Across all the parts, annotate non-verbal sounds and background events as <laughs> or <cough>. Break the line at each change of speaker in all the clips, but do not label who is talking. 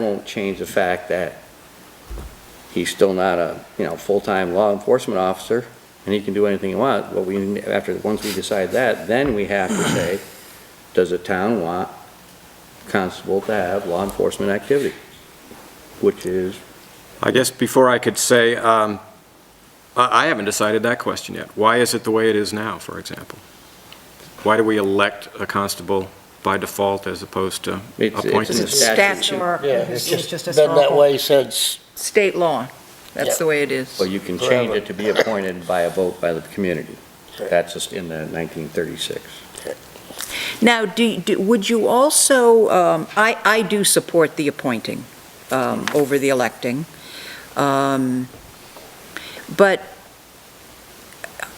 won't change the fact that he's still not a, you know, full-time law enforcement officer, and he can do anything he wants, but we, after, once we decide that, then we have to say, does the town want constable to have law enforcement activity? Which is,
I guess before I could say, um, I I haven't decided that question yet. Why is it the way it is now, for example? Why do we elect a constable by default as opposed to
It's- it's in
appointing?
the statute,
Or
Yeah,
it's
it's
it's just
just
a
been that
small,
way since,
state law. That's
Yeah.
the way it is.
but you can change it to be appointed by a vote by the community. That's just in the 1936.
Now, do, do- would you also, um, I, I do support the appointing um, over the electing. Um, But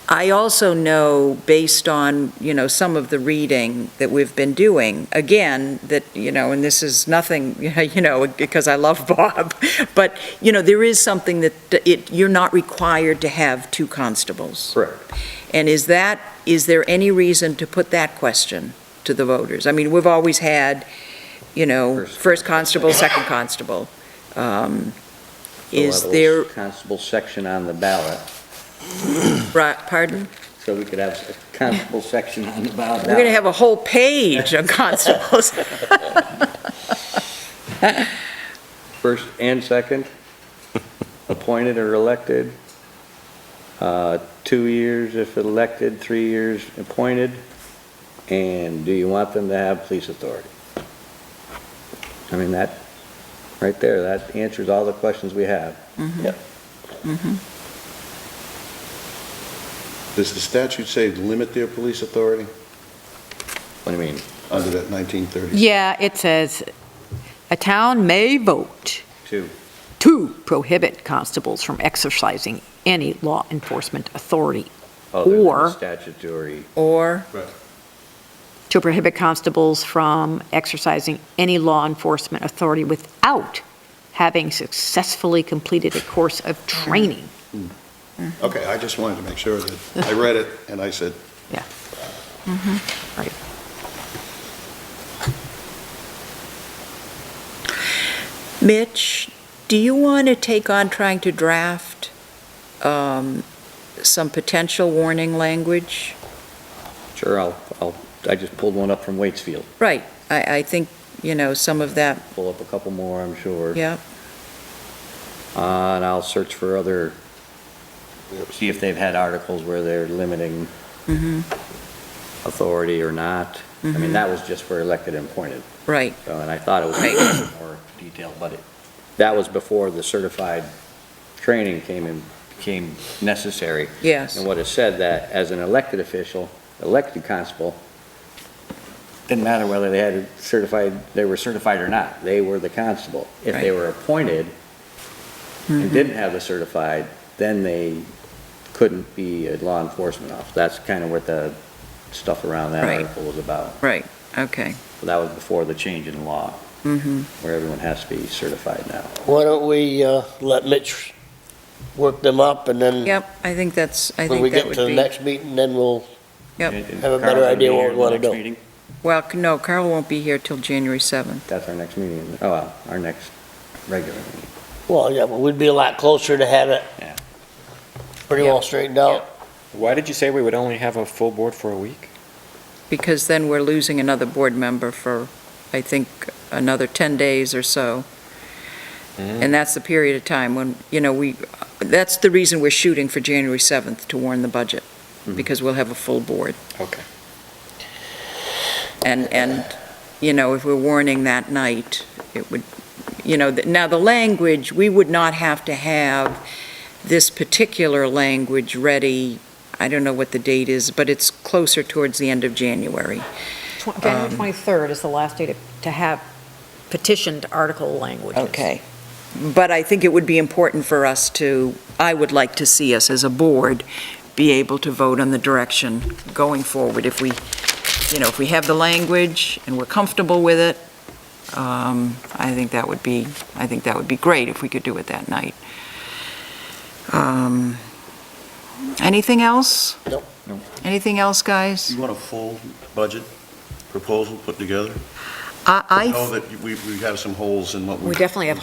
I also know, based on, you know, some of the reading that we've been doing, again, that, you know, and this is nothing, <laughs> you know, because I love Bob, <laughs> but, you know, there is something that it, you're not required to have two constables.
Correct.
And is that, is there any reason to put that question to the voters? I mean, we've always had, you know,
First
first constable, second constable. Um,
We'll
Is
have a
there,
little Constable section on the ballot,
right, pardon?
so we could have a constable section on the ballot.
We're going to have a whole page on <laughs> constables.
First and <laughs> second, appointed or elected, uh, two years if elected, three years appointed, and do you want them to have police authority? I mean, that, right there, that answers all the questions we have.
Does the statute say limit their police authority
What do you mean?
under that 1930?
Yeah, it says, "A town may vote
Two.
to prohibit constables from exercising any law enforcement authority,
other than
Or-
Oh, Statutory.
Or,
to prohibit constables from exercising any law enforcement authority without having successfully completed a course of training."
Okay, I just wanted to make sure that, I read it and I said,
Mitch, do you want to take on trying to draft um, some potential warning language?
Sure, I'll, I'll, I just pulled one up from Waitsfield.
Right, I, I think, you know, some of that,
Pull up a couple more, I'm sure.
yeah,
Uh, And I'll search for other, see if they've had articles where they're limiting authority or not. I mean, that was just for elected and appointed,
right.
so, and I thought it was more detailed, but it, that was before the certified training came in, became necessary.
Yes.
And what it said that as an elected official, elected constable, didn't matter whether they had certified, they were certified or not, they were the constable. If they
Right. Mm-hmm.
were appointed and didn't have the certified, then they couldn't be a law enforcement officer. That's kind of what the stuff around that
Right.
article was about.
Right, okay.
But That was before the change in law,
Mhm.
where everyone has to be certified now.
why don't we uh, let Mitch work them up and then
Yep, I think that's, I
when
think
we
that
get
would
to the
be.
next meeting, then we'll,
Yep.
And- and
Have a better
Carl's gonna
idea
be here
what we
at the
wanna
next
do.
meeting?
Well, c- no, Carl won't be here till January 7th.
That's our next meeting, isn't it? oh, well, our next regular meeting.
well, yeah, but we'd be a lot closer to have it
Yeah.
pretty well straightened out.
Why did you say we would only have a full board for a week?
because then we're losing another board member for, I think, another 10 days or so. And that's the period of time when, you know, we, that's the reason we're shooting for January 7th to warn the budget, because we'll have a full board.
Okay.
And, and, you know, if we're warning that night, it would, you know, th- now the language, we would not have to have this particular language ready, I don't know what the date is, but it's closer towards the end of January.
Tw- January 23rd is the last day to- to have petitioned article languages.
Okay. But I think it would be important for us to, I would like to see us as a board be able to vote on the direction going forward. If we, you know, if we have the language and we're comfortable with it, um, I think that would be, I think that would be great if we could do it that night. Um, Anything else?
Nope.
Anything else, guys?
You want a full budget proposal put together?
I, I
know that we, we have some holes in what we.
We definitely have